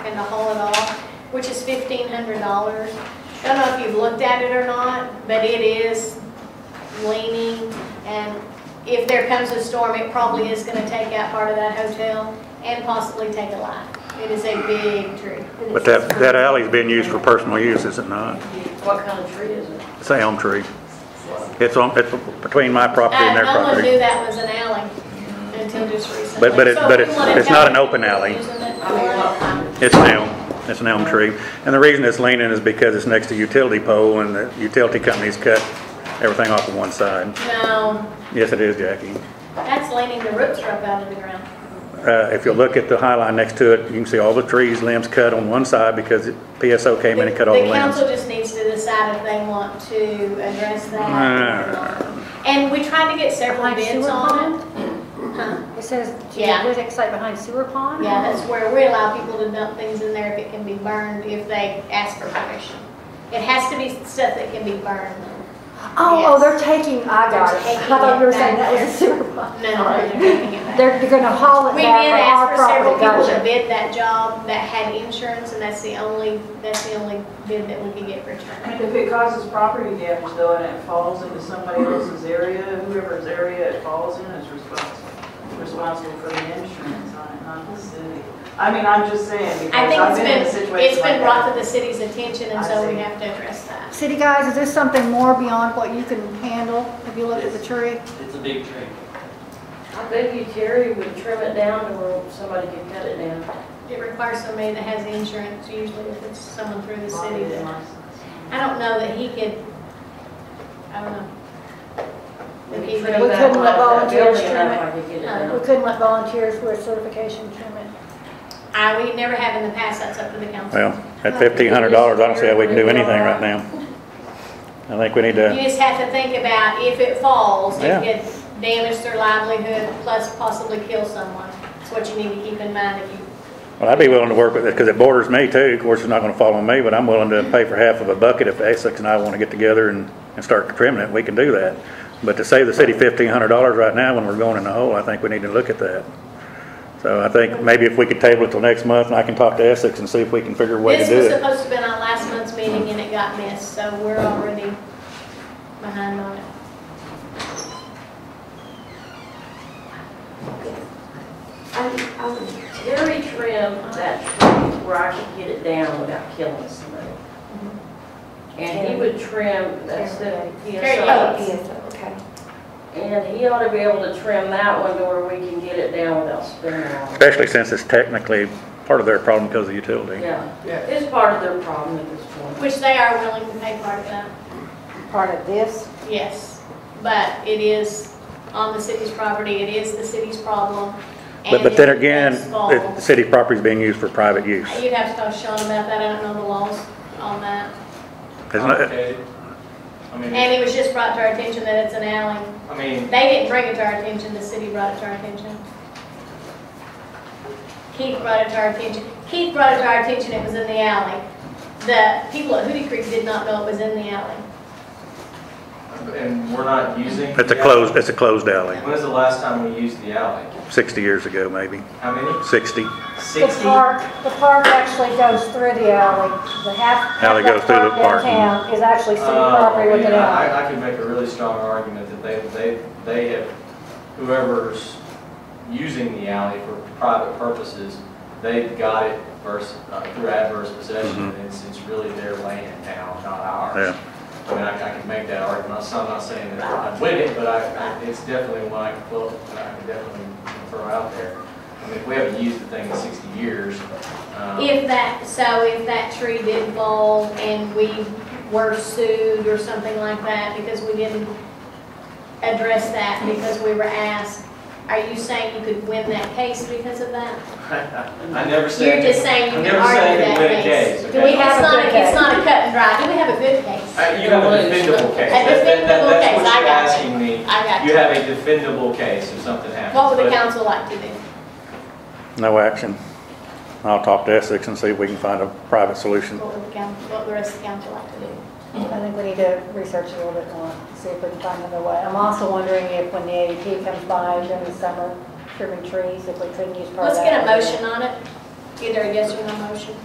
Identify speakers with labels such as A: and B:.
A: and to haul it off, which is fifteen hundred dollars. I don't know if you've looked at it or not, but it is leaning, and if there comes a storm, it probably is gonna take out part of that hotel and possibly take a life. It is a big tree.
B: But that, that alley's been used for personal use, is it not?
C: What kind of tree is it?
B: It's a elm tree. It's on, it's between my property and their
A: Uh, No one knew
B: property.
A: that was an alley until just recently.
B: But- but it-
A: So
B: but
A: if we
B: it's-
A: wanna
B: it's not an
A: tell
B: open
A: people
B: alley.
A: using it
C: I mean, what
A: for-
C: kind of?
B: It's an elm, it's an elm tree. And the reason it's leaning is because it's next to utility pole and the utility companies cut everything off of one side.
A: No,
B: Yes, it is, Jackie.
A: that's leaning the roots up out of the ground.
B: Uh, if you look at the high line next to it, you can see all the trees, limbs cut on one side because PSO came in and cut all the
A: The
B: limbs.
A: council just needs to decide if they want to address that. or
B: Uh,
A: not. And we tried to get several
D: Like
A: bids
D: sewer
A: on it.
D: pond? It says,
A: Yeah.
D: there's that site behind sewer pond?
A: Yeah, that's where we allow people to dump things in there if it can be burned, if they ask for permission. It has to be stuff that can be burned.
D: Oh, oh, they're taking, I got it. I
A: They're
D: thought you were
A: taking it
D: saying that was
A: back
D: a sewer pond.
A: No, no, they're taking it back.
D: They're, they're gonna haul it
A: We did
D: back
A: ask
D: for
A: for
D: our
A: several
D: property,
A: people to
D: gotcha.
A: bid that job that had insurance, and that's the only, that's the only bid that we could get returned.
C: If it causes property damage though, and it falls into somebody else's area, whoever's area it falls in is responsible, responsible for the insurance on it, not the city. I mean, I'm just saying,
A: I
C: because
A: think
C: I've
A: it's
C: been in a
A: been,
C: situation
A: it's
C: like
A: been brought
C: that.
A: to the city's attention, and
C: I
A: so we
C: see.
A: have to address that.
D: City guys, is this something more beyond what you can handle? Have you looked at the tree?
E: It's a big tree.
F: I bet you Terry would trim it down to where somebody could cut it down.
A: It requires somebody that has insurance, usually if it's someone through the city.
C: Bonded
A: that-
C: license.
A: I don't know that he could, I don't know. That he
F: Maybe
A: would-
F: trim
D: We
F: that
D: couldn't
F: one
D: let
F: up, that
D: volunteers
F: building
D: trim
F: up, I could get it Uh,
A: No.
D: We
F: down.
D: couldn't let volunteers with certification trim it.
A: I, we never have in the past, that's up to the council.
B: Well, at fifteen hundred dollars, I don't see how we can do anything right now. I think we need to.
A: You just have to think about if it falls,
B: Yeah.
A: it could damage their livelihood, plus possibly kill someone. It's what you need to keep in mind if you,
B: Well, I'd be willing to work with it, because it borders me too, of course, it's not gonna fall on me, but I'm willing to pay for half of a bucket if Essex and I wanna get together and, and start trimming it, we can do that. But to save the city fifteen hundred dollars right now when we're going in the hole, I think we need to look at that. So I think maybe if we could table it till next month, and I can talk to Essex and see if we can figure a way to
A: this
B: do
A: was
B: it.
A: supposed to have been on last month's meeting and it got missed, so we're already behind on it.
F: I, I would Terry trim that tree where I could get it down without killing somebody. And he would trim, that's the
A: Terry
F: PSO.
A: Yates.
G: okay.
F: And he ought to be able to trim that one to where we can get it down without spinning all of it.
B: Especially since it's technically part of their problem because of the utility.
F: Yeah, it's part of their problem at this point.
A: Which they are willing to pay part of that,
G: Part of this?
A: yes. But it is on the city's property, it is the city's problem.
B: But,
A: and
B: but then
A: if it
B: again,
A: does fall-
B: the city property's being used for private use.
A: You'd have to talk to Sean about that, I don't know the laws on that.
B: It's not-
E: Complicated. I mean,
A: And it was just brought to our attention that it's an alley.
E: I mean,
A: They didn't bring it to our attention, the city brought it to our attention. Keith brought it to our attention, Keith brought it to our attention, it was in the alley. The people at Hootie Creek did not know it was in the alley.
E: and we're not using.
B: It's a
E: the alley.
B: closed, it's a closed alley,
E: When was the last time we used the alley?
B: sixty years ago, maybe,
E: How many?
B: sixty.
D: The
E: Sixty?
D: park, the park actually goes through the alley. The half, half
B: Alley
D: of
B: goes
D: that
B: through the
D: park
B: park.
D: downtown is actually city
E: Uh,
D: property with an
E: yeah,
D: alley.
E: I, I could make a really strong argument that they, they, they have, whoever's using the alley for private purposes, they've got it versus, uh, through adverse possession,
B: Mhm.
E: it's, it's really their land now, not ours.
B: Yeah.
E: I mean, I, I could make that argument, so I'm not saying that I'm with it, but I, I, it's definitely one I can pull, that I can definitely throw out there. I mean, if we haven't used the thing in sixty years, um,
A: If that, so if that tree did fall and we were sued or something like that because we didn't address that because we were asked, are you saying you could win that case because of that?
E: I never said.
A: You're just saying
E: I'm
A: you can
E: never
A: argue
E: saying you
A: that
E: win a
A: case.
E: case,
A: Do we
E: okay?
A: have a
D: It's not
A: good,
D: a
A: it's
D: case.
A: not a cut and dry, do we have a good case?
E: Uh, You have a defendable case.
A: A
E: That- that-
A: defendable
E: that- That's
A: case, I
E: what you're
A: got it.
E: asking me.
A: I got
E: You
A: you.
E: have a defendable case if something happens.
A: What would the
E: but-
A: council like to do?
B: No action. I'll talk to Essex and see if we can find a private solution.
A: What would the council, what would the rest of the council like to do?
D: I think we need to research a little bit more, see if we can find another way. I'm also wondering if when the ADT comes by during the summer, trimming trees, if we couldn't use part of
A: Let's get
D: that.
A: a motion on it. Either a yes or no motion?